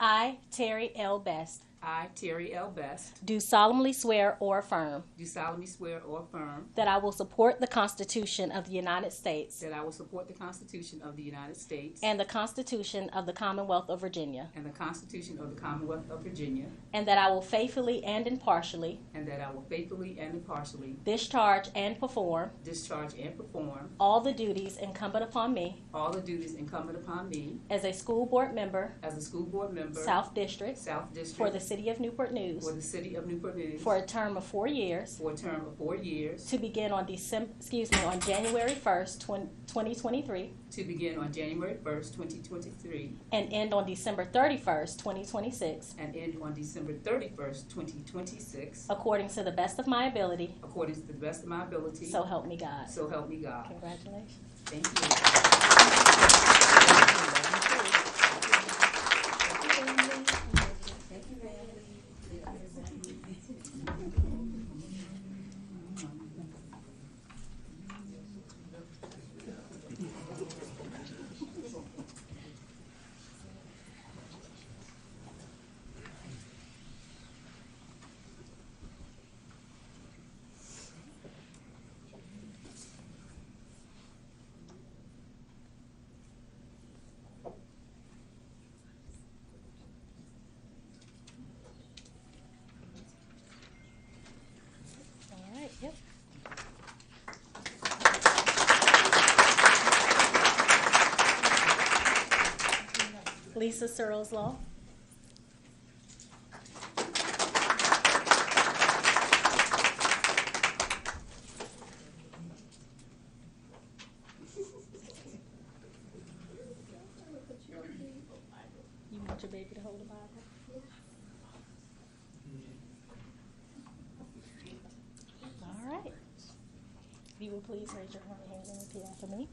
I, Terry L. Best, I, Terry L. Best, do solemnly swear or affirm do solemnly swear or affirm that I will support the Constitution of the United States that I will support the Constitution of the United States and the Constitution of the Commonwealth of Virginia, and the Constitution of the Commonwealth of Virginia, and that I will faithfully and impartially and that I will faithfully and impartially discharge and perform discharge and perform all the duties incumbent upon me all the duties incumbent upon me as a school board member, as a school board member, South District, South for the District, City of Newport News, for the City of Newport News, for a term of four years, for a term of four years, to begin on December, excuse me, on January 1st, 2023, to begin on January 1st, 2023, and end on December 31st, 2026, and end on December 31st, 2026, according to the best of my ability, according to the best of my ability. so help me God. So help me God. Congratulations. Thank All right, yep. Lisa Searles Law. You want your baby to hold the Bible? All right. If you will please raise your right hand and repeat after me.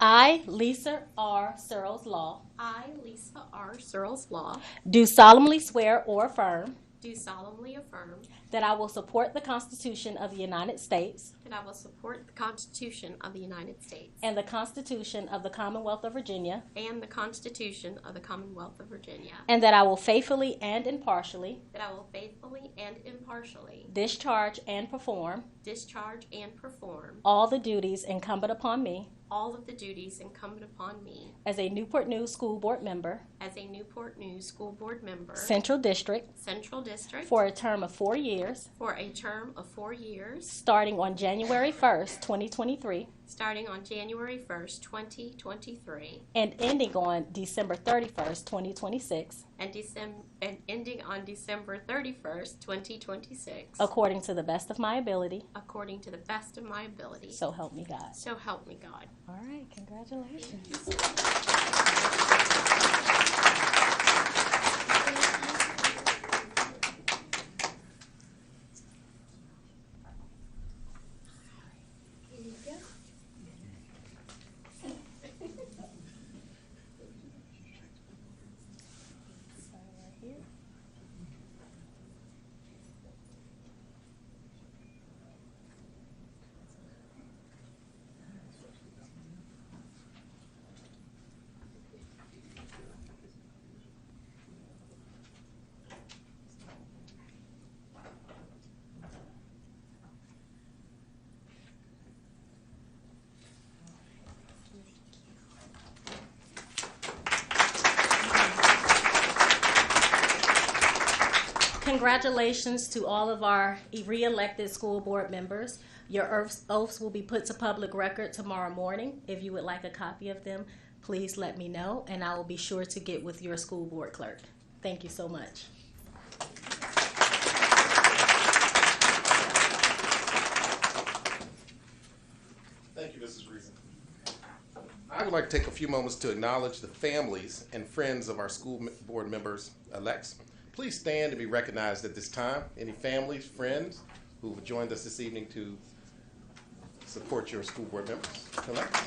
I, Lisa R. Searles Law, I, Lisa R. Searles Law, do solemnly swear or affirm do solemnly affirm that I will support the Constitution of the United States that I will support the Constitution of the United States and the Constitution of the Commonwealth of Virginia, and the Constitution of the Commonwealth of Virginia, and that I will faithfully and impartially that I will faithfully and impartially discharge and perform discharge and perform all the duties incumbent upon me all of the duties incumbent upon me as a Newport News School Board member, as a Newport News School Board member, Central District, Central District, for a term of four years, for a term of four years, starting on January 1st, 2023. starting on January 1st, 2023, and ending on December 31st, 2026, and Decem- and ending on December 31st, 2026. according to the best of my ability. according to the best of my ability. So help me God. So help me God. All right, congratulations. Congratulations to all of our re-elected school board members. Your oaths- oaths will be put to public record tomorrow morning. If you would like a copy of them, please let me know, and I will be sure to get with your school board clerk. Thank you so much. Thank you, Mrs. Reason. I would like to take a few moments to acknowledge the families and friends of our school m- board members elects. Please stand and be recognized at this time. Any families, friends who have joined us this evening to support your school board members elects?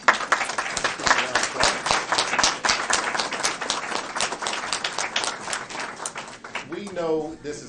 We know this is.